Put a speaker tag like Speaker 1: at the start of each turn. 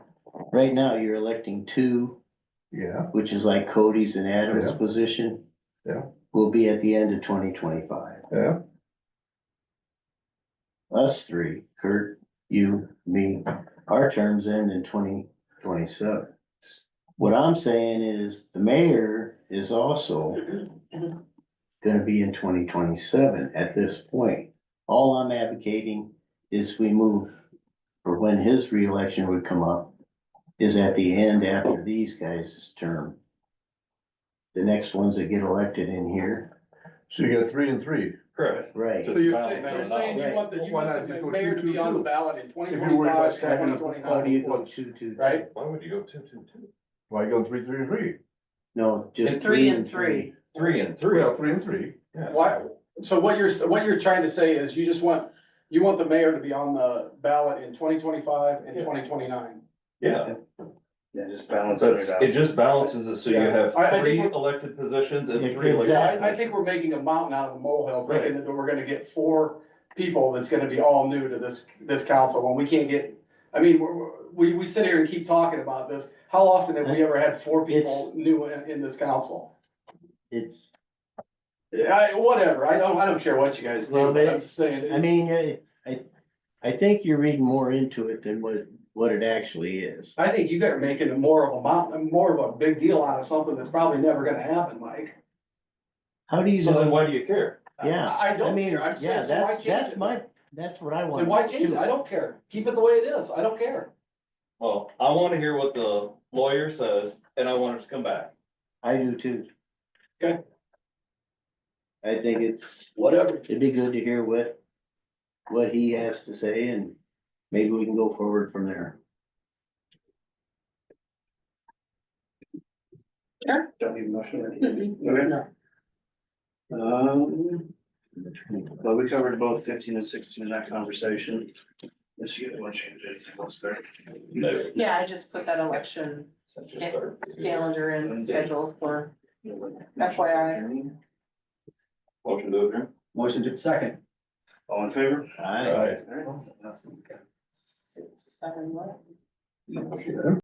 Speaker 1: Right now, you're electing two,
Speaker 2: Yeah,
Speaker 1: which is like Cody's and Adam's
Speaker 2: Yeah.
Speaker 1: position.
Speaker 2: Yeah.
Speaker 1: Will be at the end of twenty twenty-five.
Speaker 2: yeah,
Speaker 1: Us three, Kurt, you, me, our terms end in twenty twenty-seven. What I'm saying is the mayor is also gonna be in twenty twenty-seven at this point. All I'm advocating is we move for when his reelection would come up is at the end after these guys' term. The next ones that get elected in here.
Speaker 2: so you got three and three.
Speaker 3: Correct.
Speaker 1: Right.
Speaker 3: So
Speaker 4: So you're
Speaker 3: Well,
Speaker 4: saying,
Speaker 3: no,
Speaker 4: so you're
Speaker 3: no.
Speaker 4: saying you want the, you
Speaker 2: Why
Speaker 4: want
Speaker 2: not just
Speaker 4: the
Speaker 2: go
Speaker 4: mayor to be on the
Speaker 2: 2-2-2?
Speaker 4: ballot in twenty
Speaker 2: If you're worried about
Speaker 4: twenty-five and
Speaker 2: stacking
Speaker 4: twenty
Speaker 2: up the
Speaker 1: How do
Speaker 4: twenty-nine,
Speaker 1: you go two, two?
Speaker 4: right?
Speaker 3: Why would you go two, two, two?
Speaker 2: Why go three, three, and three?
Speaker 1: No, just
Speaker 3: And
Speaker 1: three and three.
Speaker 3: Three and three.
Speaker 2: Well, three and three.
Speaker 3: Yeah.
Speaker 4: Why, so what you're, what you're trying to say is you just want, you want the mayor to be on the ballot in twenty twenty-five and
Speaker 3: Yeah.
Speaker 4: twenty twenty-nine.
Speaker 3: Yeah,
Speaker 5: Yeah, just balancing
Speaker 3: that's,
Speaker 5: it out.
Speaker 3: it just balances it, so you
Speaker 4: Yeah.
Speaker 3: have
Speaker 4: I- I think
Speaker 3: three
Speaker 4: we're-
Speaker 3: elected positions and
Speaker 1: Yeah,
Speaker 3: three elected.
Speaker 1: exactly.
Speaker 4: I, I think we're making a mountain out of a molehill,
Speaker 3: Right.
Speaker 4: thinking that we're gonna get four people that's gonna be all new to this, this council, when we can't get, I mean, we're, we're- we, we sit here and keep talking about this. How often have we ever had four people new in, in this council?
Speaker 1: It's,
Speaker 4: Yeah, I, whatever, I don't, I don't care what you guys do,
Speaker 1: Well,
Speaker 4: but
Speaker 1: they-
Speaker 4: I'm just saying,
Speaker 1: I
Speaker 4: it's,
Speaker 1: mean, I, I, I think you're reading more into it than what, what it actually is.
Speaker 4: I think you guys are making it more of a mountain, more of a big deal out of something that's probably never gonna happen, Mike.
Speaker 1: How do you
Speaker 3: So then
Speaker 1: know?
Speaker 3: why do you care?
Speaker 4: I-
Speaker 1: Yeah,
Speaker 4: I
Speaker 1: I
Speaker 4: don't
Speaker 1: mean,
Speaker 4: care, I'm just
Speaker 1: yeah,
Speaker 4: saying, so why
Speaker 1: that's,
Speaker 4: change
Speaker 1: that's
Speaker 4: it?
Speaker 1: my, that's what I want.
Speaker 4: Then why change it?
Speaker 1: too.
Speaker 4: I don't care, keep it the way it is, I don't care.
Speaker 3: Well, I wanna hear what the lawyer says, and I want her to come back.
Speaker 1: I do too.
Speaker 4: Okay.
Speaker 1: I think it's,
Speaker 4: Whatever.
Speaker 1: it'd be good to hear what, what he has to say and maybe we can go forward from there.
Speaker 5: Don't need a motion or anything. Okay. Um, well, we covered both fifteen and sixteen in that conversation. Unless you guys want to change anything else there.
Speaker 3: No.
Speaker 6: Yeah, I just put that election
Speaker 3: That's just
Speaker 6: sca-
Speaker 3: our-
Speaker 6: calendar and schedule for, FYI.
Speaker 3: Motion to adjourn.
Speaker 5: Motion to second. All in favor?
Speaker 1: All right.
Speaker 3: All right.
Speaker 5: All right.
Speaker 6: six, seven, what?
Speaker 2: Okay.